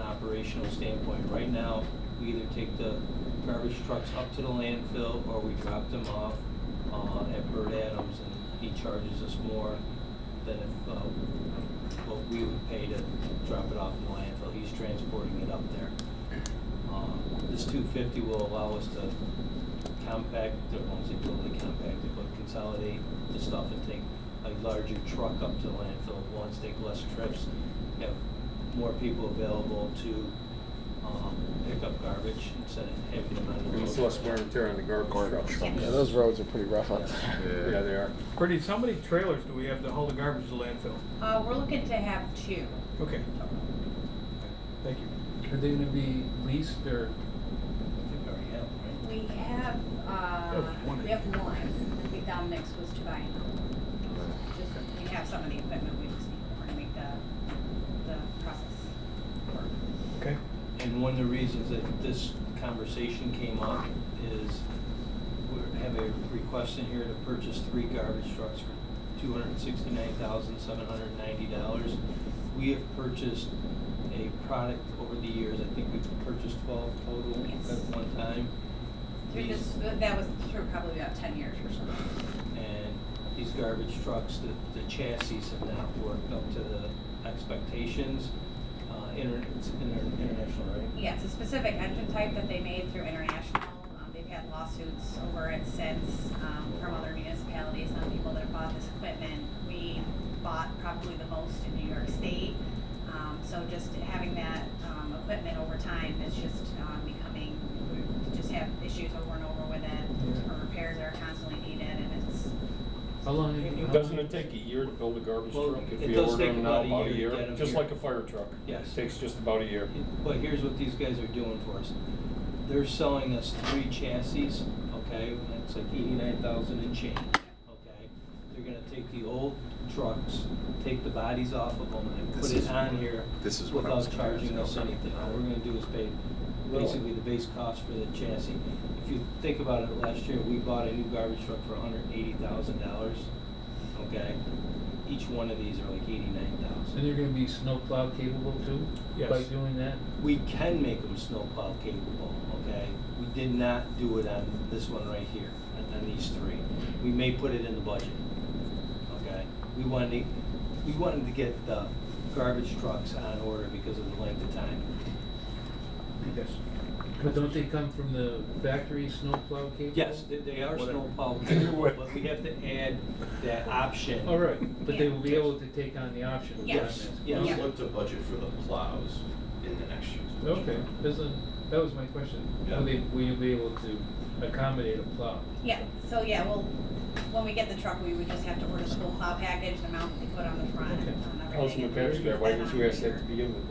operational standpoint. Right now, we either take the garbage trucks up to the landfill or we drop them off uh, at Bird Adams and he charges us more than if, uh, what we would pay to drop it off in the landfill. He's transporting it up there. Um, This two fifty will allow us to compact, I won't say totally compact it, but consolidate the stuff and take a larger truck up to the landfill at once, take less trips, have more people available to, um, pick up garbage instead of having them on the road. It's less wear and tear on the garbage trucks. Yes. Yeah, those roads are pretty rough out Yeah, there. they are. Pretty, how many trailers do we have to haul the garbage to landfill? Uh, we're looking to have two. Okay. Thank you. Are they gonna be leased or? I think I already have, right? We have, uh, That's one. we have one, I think Dom Nix was to buy another. Just, we have some of the equipment, we just need, we're gonna make the, the process work. Okay. And one of the reasons that this conversation came up is we have a request in here to purchase three garbage trucks for two hundred and sixty-nine thousand, seven hundred and ninety dollars. We have purchased a product over the years, I think we've purchased twelve total Yes. at one time. Through These- this, that was through probably about ten years or so. and these garbage trucks, the, the chassis have not worked up to the expectations. Uh, inter, it's inter- international, right? Yeah, it's a specific engine type that they made through international. Um, they've had lawsuits over it since um, from other municipalities on people that have bought this equipment. We bought probably the most in New York State. Um, so just having that um, equipment over time is just um, becoming, we just have issues over and over with it. Or repairs that are constantly needed and it's, How long? have you- Doesn't it take a year to build a garbage Well, truck? it If you does order take them now, about a about a year to get year, 'em just here. like a fire truck. Yes. Takes just about a year. But here's what these guys are doing for us. They're selling us three chassis, okay, and it's like eighty-nine thousand and change, okay? They're gonna take the old trucks, take the bodies off of them and put This it is- on here this is what I was without gonna ask charging us about. anything. All we're gonna do is pay basically the base cost for the chassis. If you think about it, last year, we bought a new garbage truck for hundred and eighty thousand dollars, okay? Each one of these are like eighty-nine thousand. And they're gonna be snowplow capable too? By Yes. doing that? We can make them snowplow capable, okay? We did not do it on this one right here, on- on these three. We may put it in the budget, okay? We wanted, to- we wanted to get the garbage trucks on order because of the length of time. Yes. But don't they come from the factory snowplow capable? Yes, they- they are Whatever. snowplow capable, but we have to add that option. All right, but they will be able to take on the option. is what I'm Yes. asking. Yes. Yeah. Let's look to budget for the plows in the next year's budget. Okay, doesn't, that was my question. Yeah. Will they, will you be able to accommodate a plow? yeah. So yeah, well, when we get the truck, we would just have to order the whole plow package, the mount that they put on the front and Okay. on everything. Councilman Papscott, why didn't you ask that to begin with?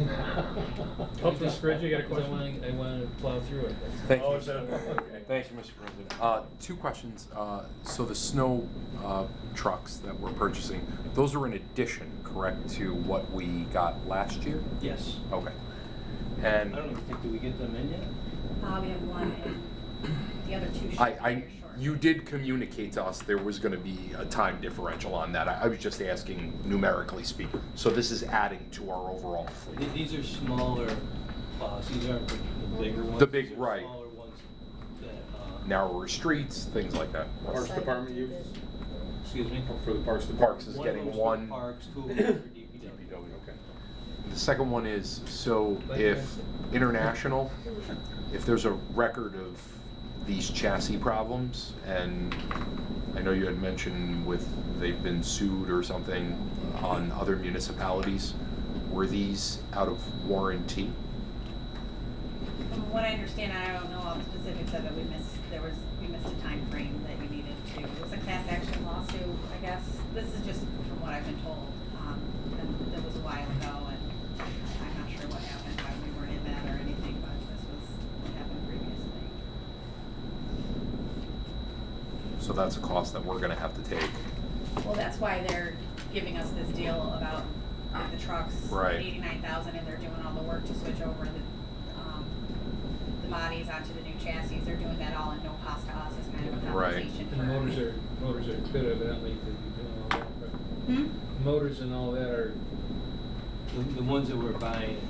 Councilman Scrivens, you got a 'Cause I question? wanna- I wanna plow through it, that's all. Thank Oh, you. is that, okay. Thank you, Mr. President. Uh, Two questions. Uh, So the snow uh, trucks that we're purchasing, those are in addition, correct, to what we got last year? Yes. Okay. I And don't even think, did we get them in yet? Uh, we have one, and the other two should I, be I, here shortly. you did communicate to us there was going to be a time differential on that. I I was just asking numerically speaking. So this is adding to our overall fleet. Th- These are smaller plows, these aren't the the bigger ones. The big- These are right. Smaller ones that, uh, Narrower streets, things like that. Parks Department uses, excuse me? for the Parks Department. Parks is One of getting them's for one. Parks, two of them are for DPW. DPW, okay. The second one is, so Like if that. international, if there's a record of these chassis problems, and I know you had mentioned with, they've been sued or something on other municipalities, were these out of warranty? From what I understand, I don't know all the specifics of it, we missed, there was, we missed a time frame that you needed to, it was a class action lawsuit, I guess. This is just from what I've been told, um, and that was a while ago, and I'm not sure what happened, why we weren't in that or anything, but this was what happened previously. So that's a cost that we're gonna have to take. Well, that's why they're giving us this deal about uh, the trucks. Right. Eighty-nine thousand, and they're doing all the work to switch over the, um, the bodies onto the new chassis. They're doing that all at no cost to us, as kind of a Right. compensation for. And motors are, motors are good evidently, because you're doing all that, right? Hmm? Motors and all that are, The, the ones that we're buying